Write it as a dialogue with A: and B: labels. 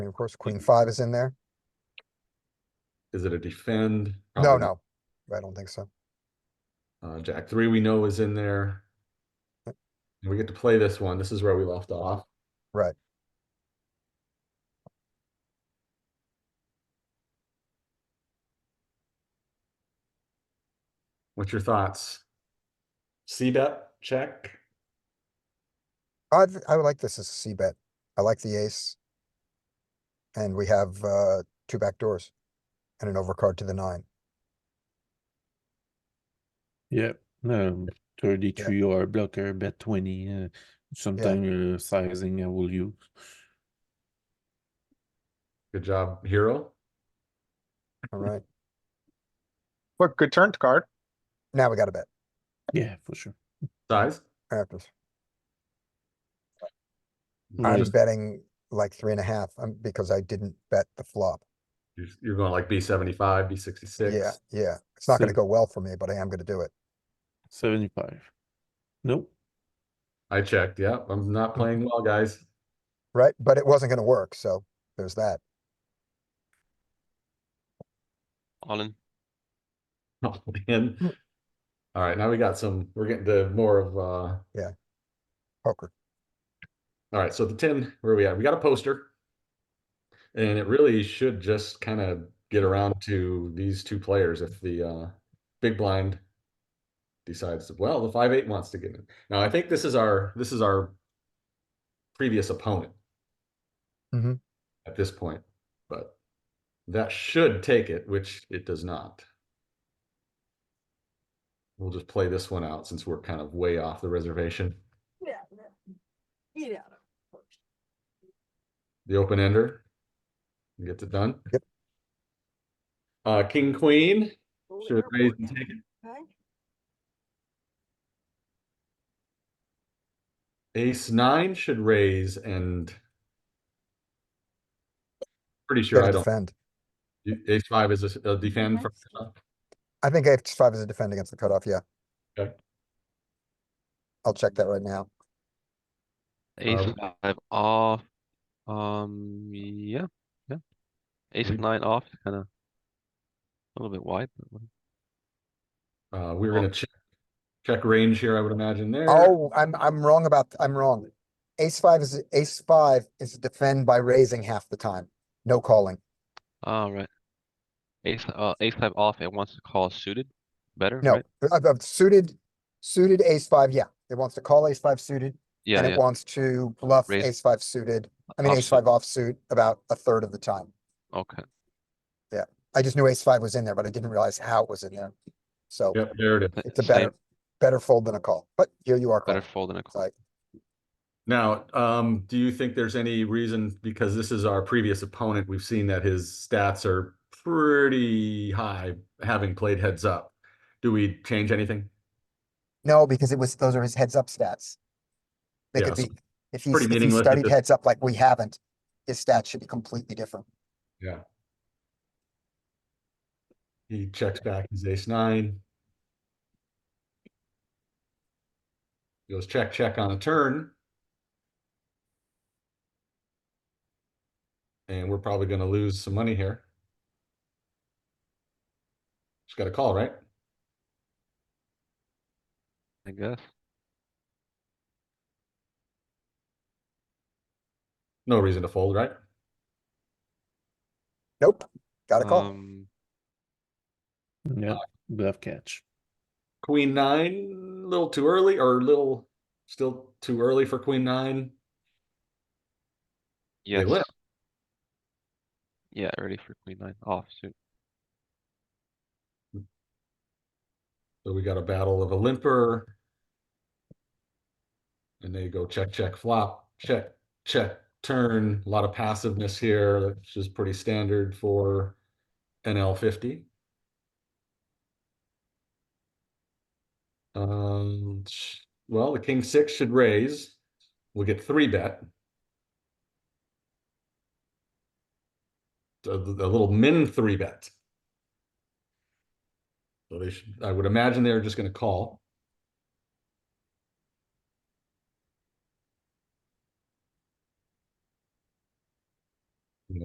A: And of course, queen five is in there.
B: Is it a defend?
A: No,
B: Probably
A: no, I don't think so.
B: Uh, Jack three we know is in there. And we get to play this one. This is where we left off.
A: Right.
B: What's your thoughts? C bet, check.
A: I'd, I would like this as a C bet. I like the ace. And we have, uh, two back doors and an overcard to the nine.
C: Yeah, no, thirty-three or blocker, bet twenty, uh, sometime uh, sizing I will use.
B: Good job, hero.
A: All
B: Hmm.
A: right,
D: Look, good turn card.
A: now we got a bet
C: Yeah, for sure.
B: Size.
A: after.
C: Right.
A: I'm
B: Hmm. Just-
A: betting like three and a half, um, because I didn't bet the flop.
B: you're- You're going like B seventy-five, B sixty-six.
A: Yeah, yeah. It's not gonna
C: So-
A: go well for me, but I am gonna do it.
C: Seventy-five. Nope,
B: I checked, yeah. I'm not playing well, guys.
A: Right? But it wasn't gonna work, so there's that.
E: All in.
B: Oh, man. All right, now we got some, we're getting to more of, uh,
A: Poker.
B: All right, so the ten, where are we at? We got a poster. And it really should just kind of get around to these two players if the uh big blind decides, well, the five eight wants to get in. Now I think this is our this is our previous opponent.
A: Mhm.
B: At this point, but that should take it, which it does not. We'll just play this one out since we're kind of way off the reservation.
F: Get out of there. Get out of there.
B: the open ender. and Gets it done.
A: Yep.
B: Uh, king, queen,
F: Go to
B: should
F: airport
B: raise and
F: now,
B: take it.
F: okay?
B: Ace nine should raise and. Pretty sure
A: Gotta
B: I don't,
A: defend.
B: ace five is a s- a defend for,
A: I think ace five is a defend against the cutoff, yeah.
B: Okay.
A: I'll check that right now.
E: Ace
B: Um,
E: five off. Um, yeah, yeah. Ace
B: We-
E: nine off, kind of a little bit wide. But what-
B: uh, we're gonna check. Check range here, I would imagine there.
A: Oh, I'm, I'm wrong about, I'm wrong. Ace five is, ace five is defend by raising half the time, no calling.
E: all right. Ace uh ace five off. It wants to call suited. Better.
A: No,
E: Right?
A: of, of suited, suited ace five, yeah. It wants to call ace five suited
E: Yeah.
A: and
E: Yeah.
A: it wants to bluff
E: Raise-
A: ace five suited. I mean, ace five
E: Offsuit.
A: offsuit about a third of the time.
E: Okay.
A: I just knew ace five was in there, but I didn't realize how it was in there. So
B: Yep, there it is.
E: th-
A: it's a
E: same,
A: better, better fold than a call, but here you are.
E: better
A: calling.
E: fold than a call.
A: Like,
B: Now, um, do you think there's any reason, because this is our previous opponent, we've seen that his stats are pretty high, having played heads up. Do we change anything?
A: No, because it was, those are his heads up stats. They
B: Yeah,
A: could
B: so
A: be, if he's,
B: pretty
A: if he
B: meaningless at
A: studied
B: this-
A: heads up like we haven't, his stats should be completely different.
B: He checks back his ace nine. Goes check, check on a turn. And we're probably gonna lose some money here. Just got a call, right?
E: I guess.
B: No reason to fold, right?
A: Nope, got a call.
E: Um,
C: yeah, bluff catch.
B: Queen nine, little too early or little, still too early for queen nine.
E: yes.
B: limp.
E: Yeah, ready for queen nine off suit.
B: So we got a battle of a limper. And they go check, check, flop, check, check, turn, a lot of passiveness here, which is pretty standard for NL fifty. Um, sh- well, the king six should raise. We'll get three bet. A, a little min three bet. So they should, I would imagine they're just gonna call.